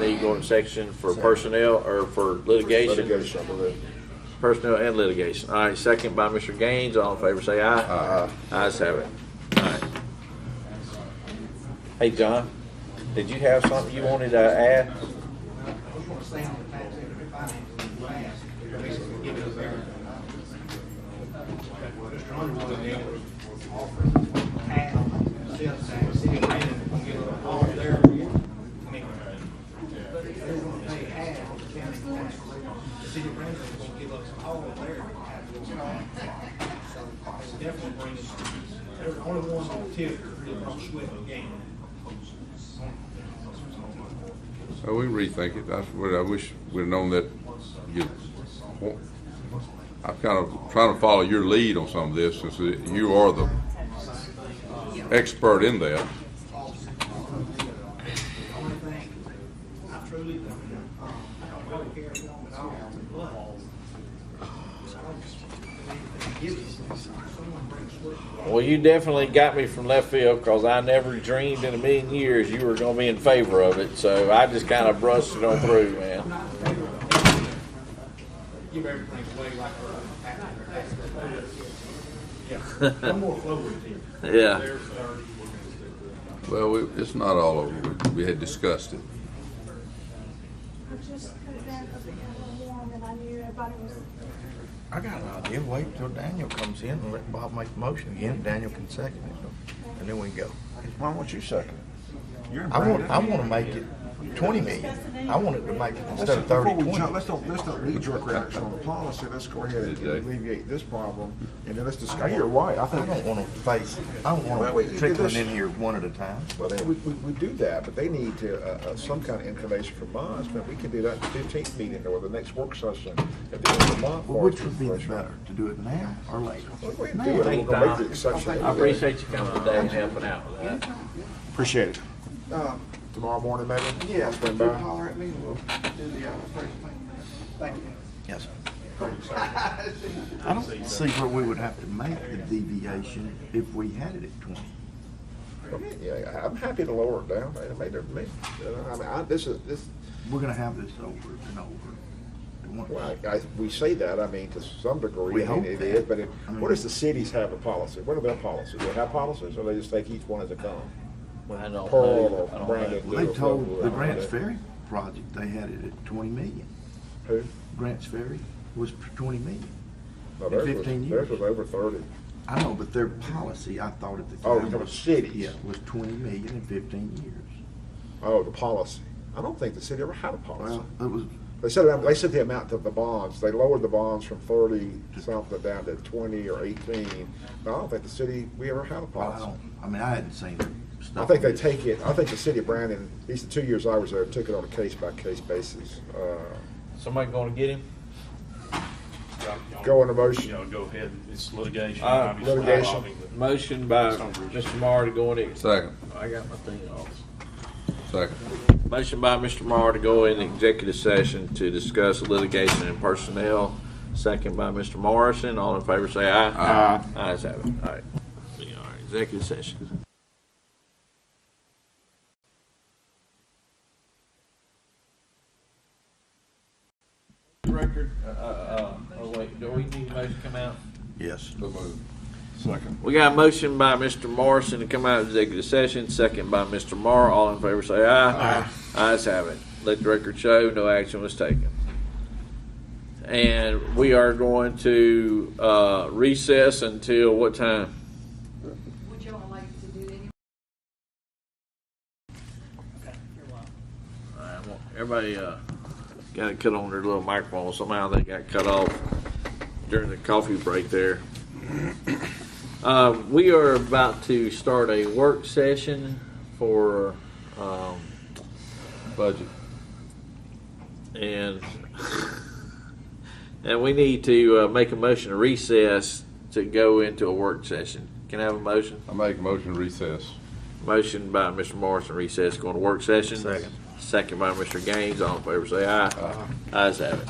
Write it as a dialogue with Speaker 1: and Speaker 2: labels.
Speaker 1: need to go into section for personnel or for litigation,
Speaker 2: Litigation, I believe.
Speaker 1: personnel and litigation. All right, second by Mr. Gaines, all in favor, say
Speaker 2: Uh-huh.
Speaker 1: aye. Aye. Ayes have it. All right. Hey, John, did you have something you wanted to add?
Speaker 3: They're the only ones on tip that don't sweat the game.
Speaker 4: So we rethink it. That's what I wish we'd known that. You, I'm kind of trying to follow your lead on some of this since you are the expert in that.
Speaker 3: I truly, don't know. I don't really care if I'm at all, but. If someone brings sweat,
Speaker 1: Well, you definitely got me from left field because I never dreamed in a million years you were going to be in favor of it. So I just kind of brushed it on through, man.
Speaker 3: not in favor of it. Give everything away like. Yeah, I'm more forward here.
Speaker 1: Yeah.
Speaker 3: There's thirty, we're gonna stick with it.
Speaker 4: Well, we, it's not all over. We, we had discussed it.
Speaker 5: I just put it down because it was warm and I knew everybody was.
Speaker 6: I got an idea. Uh, Wait till Daniel comes in and let Bob make the motion again. Daniel can second it, and then we can go.
Speaker 2: Why won't you second it?
Speaker 6: I want, I want to make it twenty million. I want it to make it instead of thirty,
Speaker 2: Before we jump,
Speaker 6: twenty.
Speaker 2: let's don't, let's not knee jerk reaction on the policy, let's go ahead and
Speaker 4: Good day.
Speaker 2: alleviate this problem, and then let's discuss, you're right, I
Speaker 6: I
Speaker 2: think,
Speaker 6: don't want to face, I don't
Speaker 2: Well,
Speaker 6: want
Speaker 2: we-
Speaker 6: to trickling in here one at a time.
Speaker 2: well, then, we, we, we do that, but they need to, uh, uh, some kind of information from us, but we can do that at the fifteenth meeting or the next work session at the end of the month. for
Speaker 6: Which would be
Speaker 2: information.
Speaker 6: better, to do it now or later?
Speaker 2: Well, we can do it, we're gonna make the exception.
Speaker 1: I appreciate you coming today and helping out with that.
Speaker 2: Appreciate it. Tomorrow morning, maybe? Yeah. Swing by.
Speaker 3: Holler at me, we'll do the, uh, first thing. Thank you.
Speaker 6: Yes. I don't see where we would have to make the deviation if we had it at twenty.
Speaker 2: Yeah, I'm happy to lower it down, it made, it made, I mean, I, this is, this,
Speaker 6: We're gonna have this over and over.
Speaker 2: Well, I, I- we say that, I mean, to some degree.
Speaker 6: We
Speaker 2: I mean,
Speaker 6: hope
Speaker 2: It
Speaker 6: that.
Speaker 2: is, but it-
Speaker 6: I mean-
Speaker 2: what does the cities have a policy? What are their policies? Do they have policies, or they just take each one as it comes?
Speaker 1: Well, I don't
Speaker 2: Pearl
Speaker 1: know. I
Speaker 2: or
Speaker 1: don't
Speaker 2: Brandon.
Speaker 1: know.
Speaker 6: Well, They
Speaker 2: or
Speaker 6: told
Speaker 2: whatever,
Speaker 6: the
Speaker 2: I don't know
Speaker 6: Grants
Speaker 2: that.
Speaker 6: Ferry project, they had it at twenty million.
Speaker 2: Who?
Speaker 6: Grants Ferry was for twenty million.
Speaker 2: No,
Speaker 6: In
Speaker 2: theirs was-
Speaker 6: 15
Speaker 2: Theirs
Speaker 6: years.
Speaker 2: was over thirty.
Speaker 6: I know, but their policy, I thought at the time.
Speaker 2: Oh, you're talking
Speaker 6: was-
Speaker 2: cities.
Speaker 6: Yeah, was twenty million in fifteen years.
Speaker 2: Oh, the policy. I don't think the city ever had a policy.
Speaker 6: Well, it was,
Speaker 2: They said, they said the amount of the bonds, they lowered the bonds from thirty something down to twenty or eighteen. But I don't think the city, we ever had a
Speaker 6: well, I
Speaker 2: policy.
Speaker 6: don't, I mean, I hadn't seen their stuff.
Speaker 2: I think they take it, I think the city of Brandon, these two years I was there, took it on a case-by-case basis. Uh,
Speaker 1: Somebody going to get him?
Speaker 2: Go on a motion.
Speaker 7: You know, go ahead, it's litigation.
Speaker 1: Uh,
Speaker 7: obviously,
Speaker 2: litigation.
Speaker 7: involving the-
Speaker 1: Motion by Mr. Marr to go in.
Speaker 4: Second,
Speaker 1: I got my thing off.
Speaker 4: second.
Speaker 1: Motion by Mr. Marr to go in executive session to discuss litigation and personnel. Second by Mr. Morrison. All in favor, say aye. Aye. Ayes have it. All right. See, All right. Executive session. Record, uh, uh, oh wait, do we need a motion to come out?
Speaker 6: Yes.
Speaker 4: Second.
Speaker 1: We got a motion by Mr. Morrison to come out of executive session, second by Mr. Morrow. All in favor say aye. Aye. Ayes have it. Let the record show, no action was taken. And we are going to uh, recess until what time?
Speaker 8: Would y'all like to do any
Speaker 1: All right, well, Everybody uh, got it cut on their little microphone. Somehow they got cut off during the coffee break there. Uh, We are about to start a work session for um,
Speaker 4: Budget.
Speaker 1: And, and we need to uh, make a motion to recess to go into a work session. Can I have a motion?
Speaker 4: I make a motion to recess.
Speaker 1: Motion by Mr. Morrison, recess, going to work session. Second. Second by Mr. Gaines, all in favor, say aye. Ayes have it.